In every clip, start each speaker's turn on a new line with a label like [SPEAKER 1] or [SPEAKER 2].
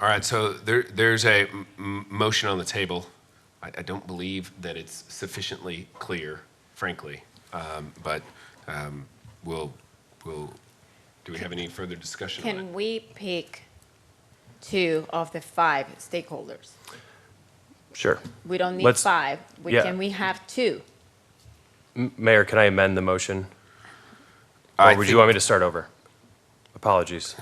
[SPEAKER 1] All right, so there, there's a m- m- motion on the table. I, I don't believe that it's sufficiently clear, frankly, um, but um, we'll, we'll, do we have any further discussion on it?
[SPEAKER 2] Can we pick two of the five stakeholders?
[SPEAKER 3] Sure.
[SPEAKER 2] We don't need
[SPEAKER 3] Let's-
[SPEAKER 2] five. We-
[SPEAKER 3] yeah.
[SPEAKER 2] Can we have two?
[SPEAKER 3] M- Mayor, can I amend the motion?
[SPEAKER 1] I
[SPEAKER 3] Or would you
[SPEAKER 1] think-
[SPEAKER 3] want me to start over? Apologies.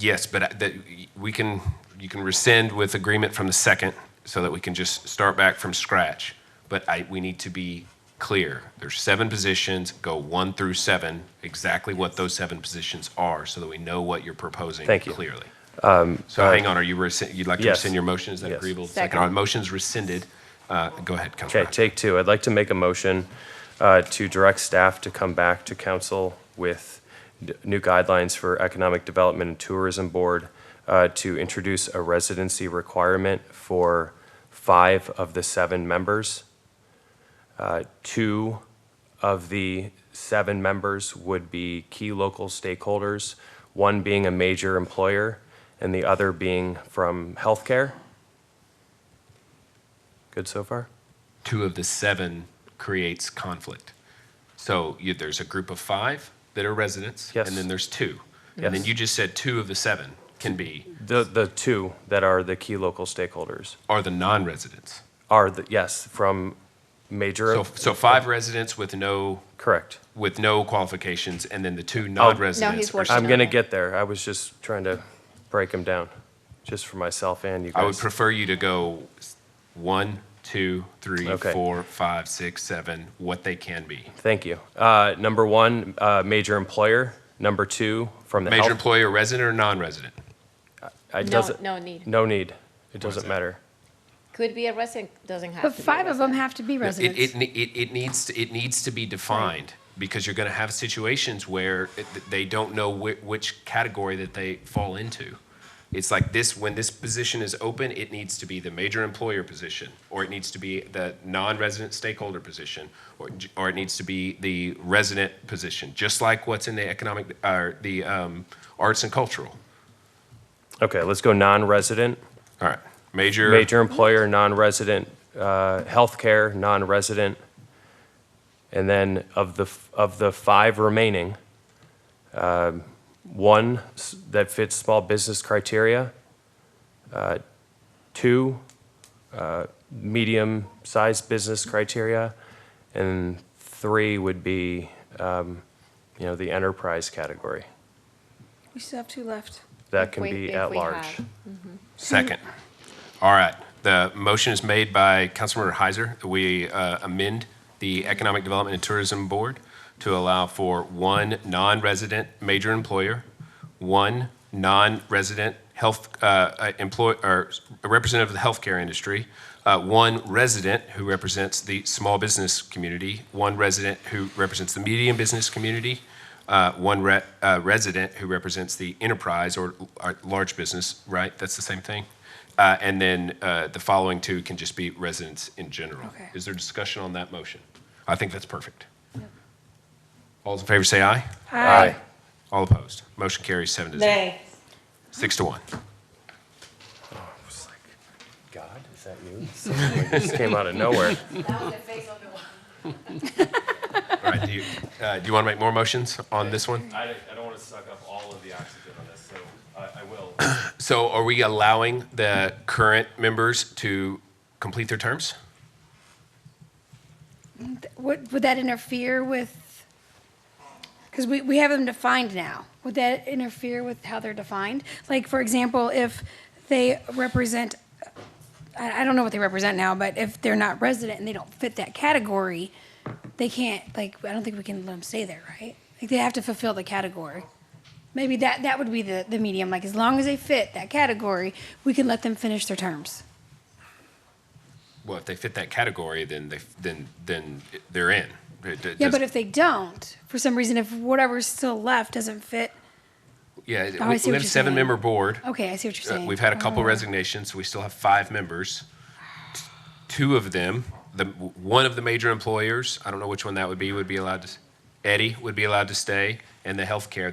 [SPEAKER 1] Yes, but I- that, we can, you can rescind with agreement from the second so that we can just start back from scratch. But I, we need to be clear. There's seven positions, go one through seven, exactly what those seven positions are so that we know what you're proposing
[SPEAKER 3] Thank you. Um, uh,
[SPEAKER 1] clearly. So hang on, are you, rescind- you'd like to
[SPEAKER 3] yes.
[SPEAKER 1] rescind your motion? Is that
[SPEAKER 3] Yes.
[SPEAKER 1] agreeable?
[SPEAKER 2] Second.
[SPEAKER 1] All right, Motion's rescinded. Uh, Go ahead, Councilor.
[SPEAKER 3] Okay, take two. I'd like to make a motion uh, to direct staff to come back to council with d- new guidelines for Economic Development and Tourism Board uh, to introduce a residency requirement for five of the seven members. Uh, Two of the seven members would be key local stakeholders, one being a major employer and the other being from healthcare. Good so far?
[SPEAKER 1] two of the seven creates conflict. So you, there's a group of five that are residents,
[SPEAKER 3] Yes.
[SPEAKER 1] and then there's two. And then
[SPEAKER 3] Yes.
[SPEAKER 1] you just said two of the seven can be
[SPEAKER 3] The, the two that are the key local stakeholders
[SPEAKER 1] are the non-residents.
[SPEAKER 3] are the, yes, from major,
[SPEAKER 1] So so five residents with no
[SPEAKER 3] correct.
[SPEAKER 1] with no qualifications, and then the
[SPEAKER 3] Oh,
[SPEAKER 1] two non-residents. are,
[SPEAKER 2] working
[SPEAKER 3] I'm gonna
[SPEAKER 2] Okay.
[SPEAKER 3] get there. I was just trying to break them down, just for myself and you
[SPEAKER 1] I would
[SPEAKER 3] guys.
[SPEAKER 1] prefer you to go s- one, two, three,
[SPEAKER 3] Okay.
[SPEAKER 1] four, five, six, seven. What they can be.
[SPEAKER 3] Thank you. Uh, number one, uh, major employer. Number two, from the
[SPEAKER 1] Major
[SPEAKER 3] health.
[SPEAKER 1] employer, resident or non-resident?
[SPEAKER 3] I-
[SPEAKER 2] No-
[SPEAKER 3] doesn't-
[SPEAKER 2] no need.
[SPEAKER 3] No need. It
[SPEAKER 1] that?
[SPEAKER 3] doesn't matter.
[SPEAKER 2] Could be a resident, doesn't have to
[SPEAKER 4] But
[SPEAKER 2] be a
[SPEAKER 4] five of them
[SPEAKER 2] resident.
[SPEAKER 4] have to be
[SPEAKER 1] No, It,
[SPEAKER 4] residents.
[SPEAKER 1] it, ne- it, it needs, to- it needs to be defined, because you're gonna have situations where it- they don't know which, which category that they fall into. It's like this, when this position is open, it needs to be the major employer position, or it needs to be the non-resident stakeholder position, or, j- or it needs to be the resident position, just like what's in the economic, or the, um, arts and cultural.
[SPEAKER 3] Okay, let's go non-resident,
[SPEAKER 1] All right, major.
[SPEAKER 3] major employer, non-resident, uh, healthcare, non-resident. And then of the, f- of the five remaining, uh, one s- that fits small business criteria, uh, two uh, medium-sized business criteria, and three would be, um, you know, the enterprise category.
[SPEAKER 4] We still have two left.
[SPEAKER 3] That
[SPEAKER 2] If
[SPEAKER 3] can
[SPEAKER 2] we-
[SPEAKER 3] be
[SPEAKER 2] if
[SPEAKER 3] at
[SPEAKER 2] we
[SPEAKER 3] large.
[SPEAKER 2] have.
[SPEAKER 1] Second. All right. The motion is made by Councilmember Heiser. that We uh, amend the Economic Development and Tourism Board to allow for one non-resident major employer, one non-resident health uh, employ or representative of the healthcare industry, uh, one resident who represents the small business community, one resident who represents the medium business community, uh, one re- uh, resident who represents the enterprise or, or large business, right? That's the same thing. Uh, and then uh, the following two can just be residents in general.
[SPEAKER 4] Okay.
[SPEAKER 1] Is there discussion on that motion? I think that's perfect. All those in favor say aye.
[SPEAKER 4] Uh,
[SPEAKER 3] Aye.
[SPEAKER 1] All opposed. Motion carries seven to zero. Six to one.
[SPEAKER 3] God, is that you? This came out of nowhere.
[SPEAKER 1] All right. Do you, uh, do you want to make more motions on this one?
[SPEAKER 3] I, I don't want to suck up all of the oxygen on this, so I, I will.
[SPEAKER 1] So are we allowing the current members to complete their terms?
[SPEAKER 4] Would, would that interfere with, because we, we have them defined now. Would that interfere with how they're defined? Like, for example, if they represent, I, I don't know what they represent now, but if they're not resident and they don't fit that category, they can't, like, I don't think we can let them stay there, right? Like, they have to fulfill the category. Maybe that, that would be the, the medium, like, as long as they fit that category, we can let them finish their terms.
[SPEAKER 1] Well, if they fit that category, then they, then, then they're in. It- it
[SPEAKER 4] Yeah,
[SPEAKER 1] doesn't-
[SPEAKER 4] but if they don't, for some reason, if whatever's still left doesn't fit,
[SPEAKER 1] Yeah, it-
[SPEAKER 4] Oh, I
[SPEAKER 1] we
[SPEAKER 4] see
[SPEAKER 1] we
[SPEAKER 4] what
[SPEAKER 1] have a
[SPEAKER 4] you're
[SPEAKER 1] seven-member board.
[SPEAKER 4] okay, I see what you're
[SPEAKER 1] Uh,
[SPEAKER 4] saying.
[SPEAKER 1] We've had a couple
[SPEAKER 4] Oh.
[SPEAKER 1] resignations, so we still have five members. T- Two of them, the, one of the major employers, I don't know which one that would be, would be allowed to, s- Eddie would be allowed to stay, and the healthcare